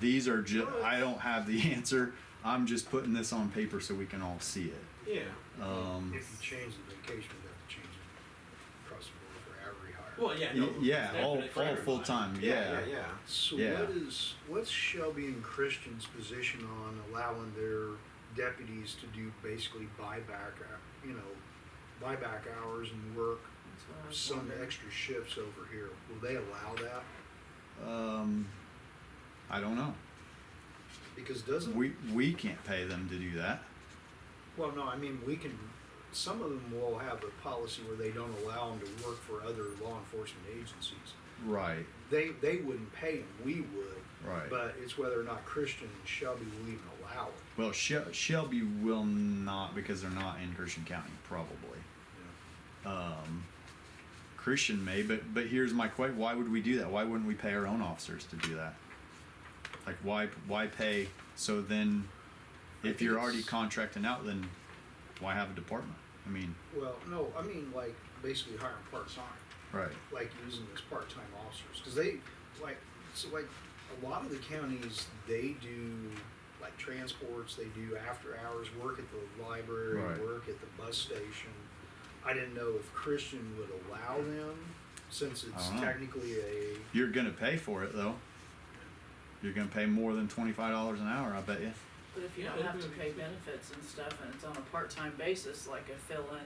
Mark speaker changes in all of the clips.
Speaker 1: These are ju- I don't have the answer. I'm just putting this on paper so we can all see it.
Speaker 2: Yeah.
Speaker 1: Um,
Speaker 3: If you change the vacation, we have to change it across the board for every hire.
Speaker 4: Well, yeah, no,
Speaker 1: y- yeah, all,
Speaker 4: definitely for
Speaker 1: all
Speaker 4: everybody.
Speaker 1: full time. Yeah.
Speaker 2: Yeah, yeah.
Speaker 3: So
Speaker 1: Yeah.
Speaker 3: what is, what's Shelby and Christian's position on allowing their deputies to do basically buyback, uh, you know, buyback hours and work
Speaker 5: That's what I was
Speaker 3: some
Speaker 5: wondering.
Speaker 3: extra shifts over here? Will they allow that?
Speaker 1: Um, I don't know.
Speaker 3: Because doesn't,
Speaker 1: We we can't pay them to do that.
Speaker 3: well, no, I mean, we can, some of them will have a policy where they don't allow them to work for other law enforcement agencies.
Speaker 1: Right.
Speaker 3: They, they wouldn't pay them, we would.
Speaker 1: Right.
Speaker 3: But it's whether or not Christian and Shelby will even allow it.
Speaker 1: Well, Shel- Shelby will not because they're not in Christian County, probably.
Speaker 3: you know?
Speaker 1: Um, Christian may, but but here's my question: Why would we do that? Why wouldn't we pay our own officers to do that? Like, why why pay? So then, if you're already contracting out, then why have a department? I mean,
Speaker 3: Well, no, I mean like basically hiring part time,
Speaker 1: right,
Speaker 3: like using as part time officers, because they like so like a lot of the counties they do like transports, they do after hours work at the library,
Speaker 1: Right.
Speaker 3: work at the bus station. I didn't know if Christian would allow them since it's
Speaker 1: don't know.
Speaker 3: technically a
Speaker 1: you're gonna pay for it though. You're gonna pay more than twenty five dollars an hour, I bet you.
Speaker 5: But if you
Speaker 4: Yeah,
Speaker 5: don't have
Speaker 4: that'd
Speaker 5: to
Speaker 4: be-
Speaker 5: pay benefits and stuff and it's on a part-time basis, like a fill-in,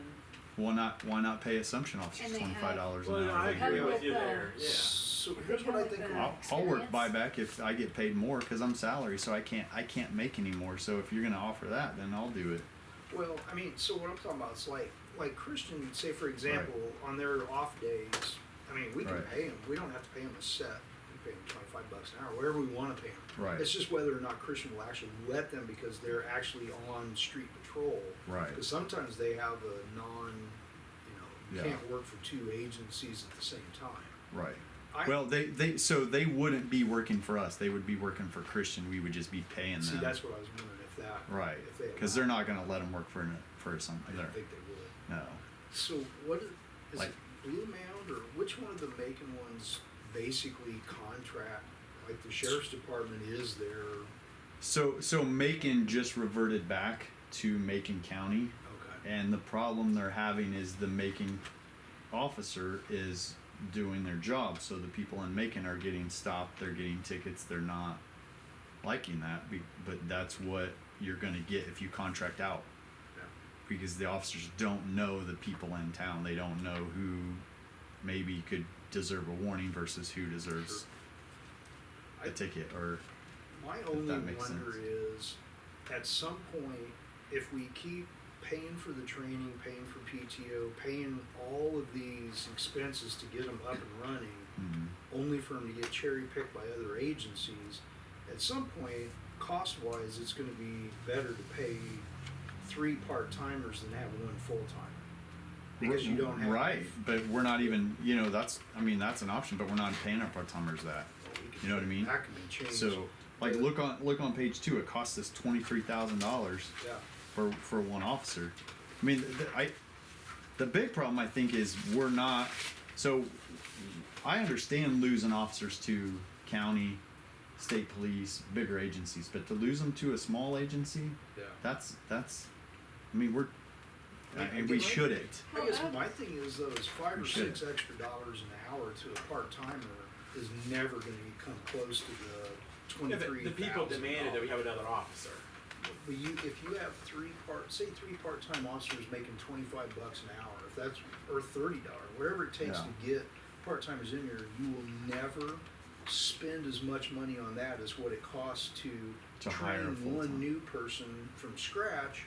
Speaker 1: Why not? Why not pay assumption
Speaker 6: And
Speaker 1: officers
Speaker 6: they
Speaker 1: twenty five dollars an
Speaker 4: Well, no,
Speaker 1: hour?
Speaker 4: I
Speaker 1: They do
Speaker 4: agree
Speaker 1: it.
Speaker 4: with you there, yeah.
Speaker 3: So here's what I think.
Speaker 6: How
Speaker 1: I'll,
Speaker 6: about
Speaker 1: I'll work
Speaker 6: Experience.
Speaker 1: buyback if I get paid more because I'm salary, so I can't I can't make any more. So if you're gonna offer that, then I'll do it.
Speaker 3: Well, I mean, so what I'm talking about is like, like Christian, say for example, on their off days, I mean, we can
Speaker 1: Right.
Speaker 3: pay them. We don't have to pay them a set. We pay them 25 bucks an hour, wherever we want to pay them.
Speaker 1: Right.
Speaker 3: It's just whether or not Christian will actually let them because they're actually on street patrol.
Speaker 1: Right.
Speaker 3: Because sometimes they have a non, you know, you
Speaker 1: Yeah.
Speaker 3: can't work for two agencies at the same time.
Speaker 1: Right.
Speaker 3: I-
Speaker 1: well, they, they so they wouldn't be working for us. They would be working for Christian. We would just be paying
Speaker 3: See,
Speaker 1: them.
Speaker 3: that's what I was wondering if that.
Speaker 1: uh, right.
Speaker 3: If they.
Speaker 1: Because
Speaker 3: allow-
Speaker 1: they're not going to let them work for an- for
Speaker 3: I
Speaker 1: something.
Speaker 3: don't
Speaker 1: There.
Speaker 3: think they would.
Speaker 1: No.
Speaker 3: So what is, is
Speaker 1: Like-
Speaker 3: it Blue Mound or which one of the Macon ones basically contract? Like the sheriff's department is their
Speaker 1: So so Macon just reverted back to Macon County,
Speaker 3: okay.
Speaker 1: and the problem they're having is the Macon officer is doing their job. So the people in Macon are getting stopped. They're getting tickets. They're not liking that. be- But that's what you're going to get if you contract out. because the officers don't know the people in town. They don't know who maybe could deserve a warning versus who deserves
Speaker 3: I-
Speaker 1: a ticket or
Speaker 3: My
Speaker 1: that
Speaker 3: only
Speaker 1: makes
Speaker 3: wonder
Speaker 1: sense.
Speaker 3: is, at some point, if we keep paying for the training, paying for PTO, paying all of these expenses to get them up and running,
Speaker 1: mm,
Speaker 3: only for them to get cherry picked by other agencies. At some point, cost wise, it's going to be better to pay three part timers than have one full timer because you don't have
Speaker 1: right. But we're not even you know that's I mean that's an option, but we're not paying our part timers that.
Speaker 3: Well, we can-
Speaker 1: You know what I mean?
Speaker 3: That can be changed.
Speaker 1: So like look on look on page two. It costs us twenty three thousand dollars.
Speaker 3: yeah,
Speaker 1: for for one officer. I mean, th th- I the big problem I think is we're not. So I understand losing officers to county, state police, bigger agencies, but to lose them to a small agency,
Speaker 3: yeah.
Speaker 1: that's that's. I mean, we're
Speaker 3: I mean,
Speaker 1: and we
Speaker 3: I guess-
Speaker 1: shouldn't.
Speaker 3: I guess my thing is though is five
Speaker 1: We
Speaker 3: or
Speaker 1: should.
Speaker 3: six extra dollars an hour to a part timer is never going to come close to the
Speaker 4: Yeah,
Speaker 3: twenty
Speaker 4: but
Speaker 3: three.
Speaker 4: the people demanded that we have another officer.
Speaker 3: But you, if you have three part, say three part-time officers making twenty-five bucks an hour, if that's or thirty dollar, whatever it takes
Speaker 1: Yeah.
Speaker 3: to get part-timers in here, you will never spend as much money on that as what it costs to,
Speaker 1: To hire a
Speaker 3: train
Speaker 1: full-time.
Speaker 3: one new person from scratch.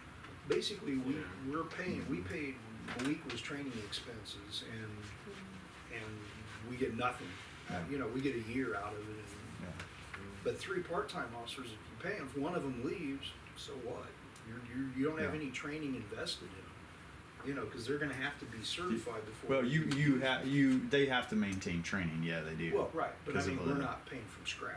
Speaker 3: Basically, we
Speaker 4: Yeah.
Speaker 3: we're paying.
Speaker 1: Mm-hmm.
Speaker 3: We paid Malik was training expenses, and and we get nothing.
Speaker 1: Yeah.
Speaker 3: You know, we get a year out of it. And,
Speaker 1: Yeah.
Speaker 3: but three part-time officers, if you pay them, if one of them leaves, so what? You're, you you don't have
Speaker 1: Yeah.
Speaker 3: any training invested in them, you know, because they're going to have to be certified before.
Speaker 1: Well, you you have you they have to maintain training. Yeah, they do.
Speaker 3: Well, right, but I
Speaker 1: 'Cause of
Speaker 3: mean,
Speaker 1: the-
Speaker 3: we're not paying from scratch.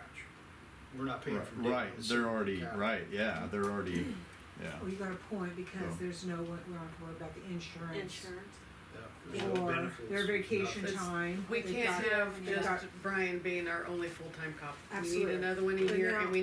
Speaker 3: We're not paying
Speaker 1: Right,
Speaker 3: from day
Speaker 1: right.
Speaker 3: one.
Speaker 1: They're already
Speaker 3: Yeah.
Speaker 1: right. Yeah, they're already. Yeah.
Speaker 7: Well, you got a point, because
Speaker 1: So-
Speaker 7: there's no, one- we don't have to worry about the insurance.
Speaker 5: insurance.
Speaker 3: Yeah. There's no
Speaker 7: Or
Speaker 3: benefits,
Speaker 7: their vacation
Speaker 3: nothing.
Speaker 5: It's-
Speaker 7: time.
Speaker 8: We
Speaker 7: They've
Speaker 8: can't
Speaker 7: got-
Speaker 8: have
Speaker 7: they've got-
Speaker 8: just Brian being our only full-time cop. We need
Speaker 7: Absolutely.
Speaker 8: another one a
Speaker 7: But
Speaker 8: year
Speaker 7: now-
Speaker 8: and we